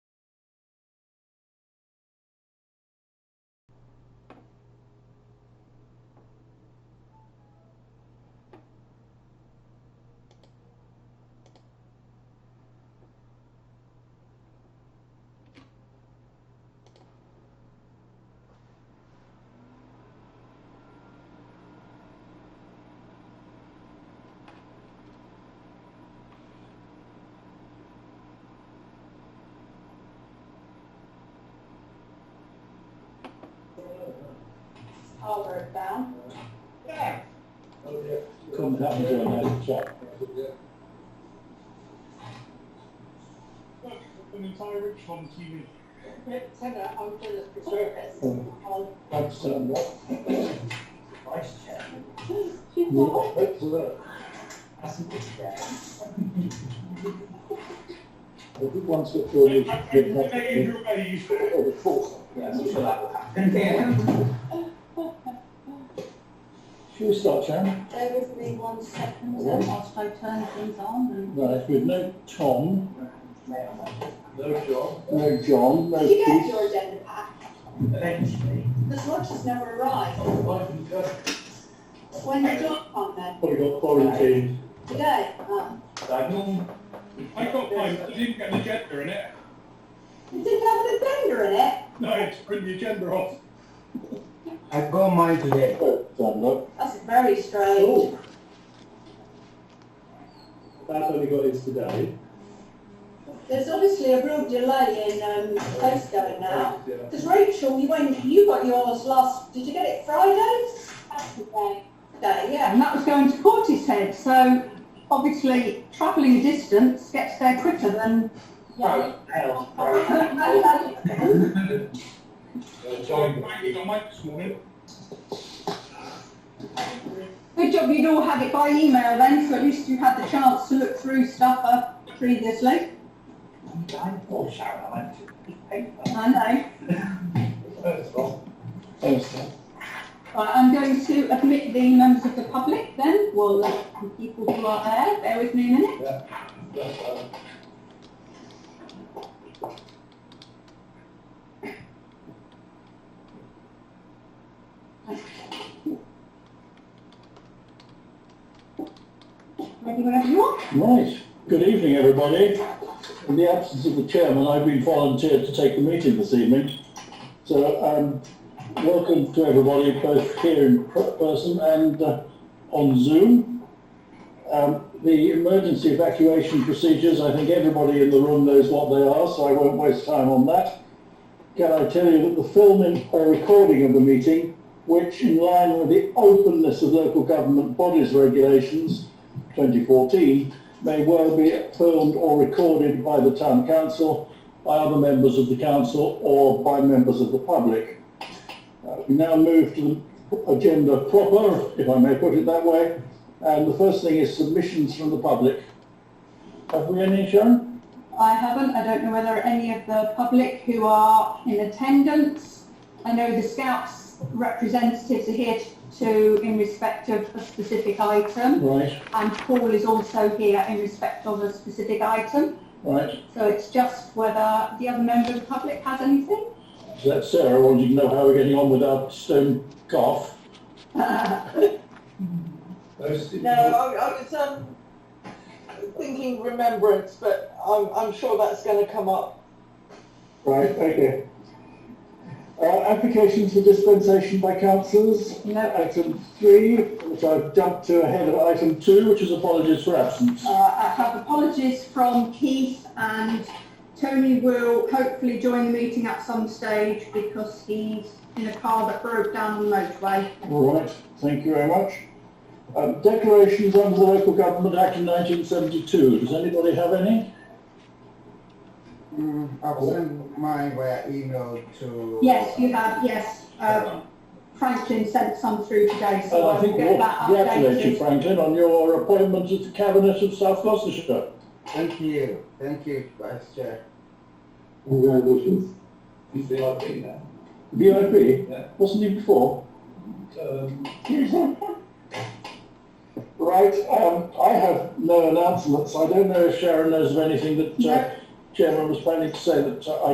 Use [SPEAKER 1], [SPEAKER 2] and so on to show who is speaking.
[SPEAKER 1] Albert Bound,
[SPEAKER 2] comes out into a nice check.
[SPEAKER 3] An entire rich on TV.
[SPEAKER 1] Rick Tugger onto the preserves.
[SPEAKER 2] Oh.
[SPEAKER 1] On
[SPEAKER 2] That's something that,
[SPEAKER 4] Vice chair.
[SPEAKER 1] two
[SPEAKER 2] yeah, that's right. I think once it goes,
[SPEAKER 3] I
[SPEAKER 2] then
[SPEAKER 3] can
[SPEAKER 2] that's
[SPEAKER 3] make
[SPEAKER 2] the,
[SPEAKER 3] Andrew Mays.
[SPEAKER 2] or the fourth.
[SPEAKER 4] Yeah, so sure that will happen. Yeah.
[SPEAKER 2] Should we start, Sharon?
[SPEAKER 1] Bear with me one second, uh,
[SPEAKER 2] Oh.
[SPEAKER 1] whilst I turn things on
[SPEAKER 2] Right, with no Tom,
[SPEAKER 4] No job.
[SPEAKER 2] no John, no
[SPEAKER 1] and. You get
[SPEAKER 2] Keith.
[SPEAKER 1] your agenda pack,
[SPEAKER 4] Eventually.
[SPEAKER 1] the sludges never arrive.
[SPEAKER 4] Oh, I can go.
[SPEAKER 1] When the job on then,
[SPEAKER 2] Probably got quarantined.
[SPEAKER 1] today, uh,
[SPEAKER 4] Diagonal.
[SPEAKER 3] I got mine, but I didn't get an agenda in it.
[SPEAKER 1] it didn't have an agenda in it,
[SPEAKER 3] No, it's print the agenda off.
[SPEAKER 5] I've got mine today.
[SPEAKER 2] But, um, look,
[SPEAKER 1] that's very strange.
[SPEAKER 2] oh. That's only got his today.
[SPEAKER 1] There's obviously a real delay in, um, place going now.
[SPEAKER 4] Yeah.
[SPEAKER 1] Because Rachel, you went, you got yours last, did you get it Friday? Saturday. Day, yeah.
[SPEAKER 6] And that was going to Portishead, so obviously travelling distance gets there quicker than
[SPEAKER 1] Yeah.
[SPEAKER 3] So I'm banging on Mike this morning.
[SPEAKER 6] Good job you'd all had it by email then, so at least you had the chance to look through stuff uh, previously.
[SPEAKER 4] Oh, Sharon, I like to. Hey,
[SPEAKER 6] I know.
[SPEAKER 4] First off,
[SPEAKER 2] Thanks, Tom.
[SPEAKER 6] Right, I'm going to admit the members of the public then. We'll let the people who are there, bear with me a minute.
[SPEAKER 4] that's, uh,
[SPEAKER 6] Ready whenever you are.
[SPEAKER 2] Right, good evening, everybody. In the absence of the chairman, I've been volunteered to take the meeting this evening. So, um, welcome to everybody, both here in per- person and uh, on Zoom. Um, the emergency evacuation procedures, I think everybody in the room knows what they are, so I won't waste time on that. Can I tell you that the filming or recording of the meeting, which in line with the openness of local government bodies regulations 2014, may well be filmed or recorded by the town council, by other members of the council or by members of the public. Uh, We now move to the agenda proper, if I may put it that way, and the first thing is submissions from the public. Have we any, Sharon?
[SPEAKER 6] I haven't. I don't know whether any of the public who are in attendance. I know the Scouts representatives are here to, in respect of a specific item,
[SPEAKER 2] Right,
[SPEAKER 6] and Paul is also here in respect of a specific item.
[SPEAKER 2] right.
[SPEAKER 6] So it's just whether the other member of the public has anything.
[SPEAKER 2] So that's Sarah wanting to know how we're getting on with our stone calf.
[SPEAKER 6] Uh,
[SPEAKER 4] those-
[SPEAKER 7] No, I, I was um, thinking remembrance, but I'm, I'm sure that's going to come up.
[SPEAKER 2] Right, okay. Uh, applications for dispensation by councillors.
[SPEAKER 6] no,
[SPEAKER 2] Item three, which I've jumped to ahead of item two, which is apologies for absence.
[SPEAKER 6] uh, I have apologies from Keith and Tony will hopefully join the meeting at some stage because he's in a car that broke down on the motorway.
[SPEAKER 2] All right, thank you very much. Um, declarations under the Local Government Act of 1972. Does anybody have any?
[SPEAKER 5] Mm, I'll send mine via email to.
[SPEAKER 6] Yes, you have, yes. Uh, Franklin sent some through today, so
[SPEAKER 2] Uh,
[SPEAKER 6] I
[SPEAKER 2] I think
[SPEAKER 6] will
[SPEAKER 2] we
[SPEAKER 6] get that
[SPEAKER 2] ought to congratulate you,
[SPEAKER 6] updated.
[SPEAKER 2] Franklin, on your appointment at the Cabinet of South Gloucestershire.
[SPEAKER 5] Thank you, thank you, Vice Chair.
[SPEAKER 2] Congratulations.
[SPEAKER 4] He's the IP now.
[SPEAKER 2] VIP,
[SPEAKER 4] Yeah.
[SPEAKER 2] wasn't he before?
[SPEAKER 4] Um,
[SPEAKER 2] Right, um, I have no announcements. I don't know if Sharon knows of anything that uh,
[SPEAKER 6] No.
[SPEAKER 2] Chairman was planning to say that uh, I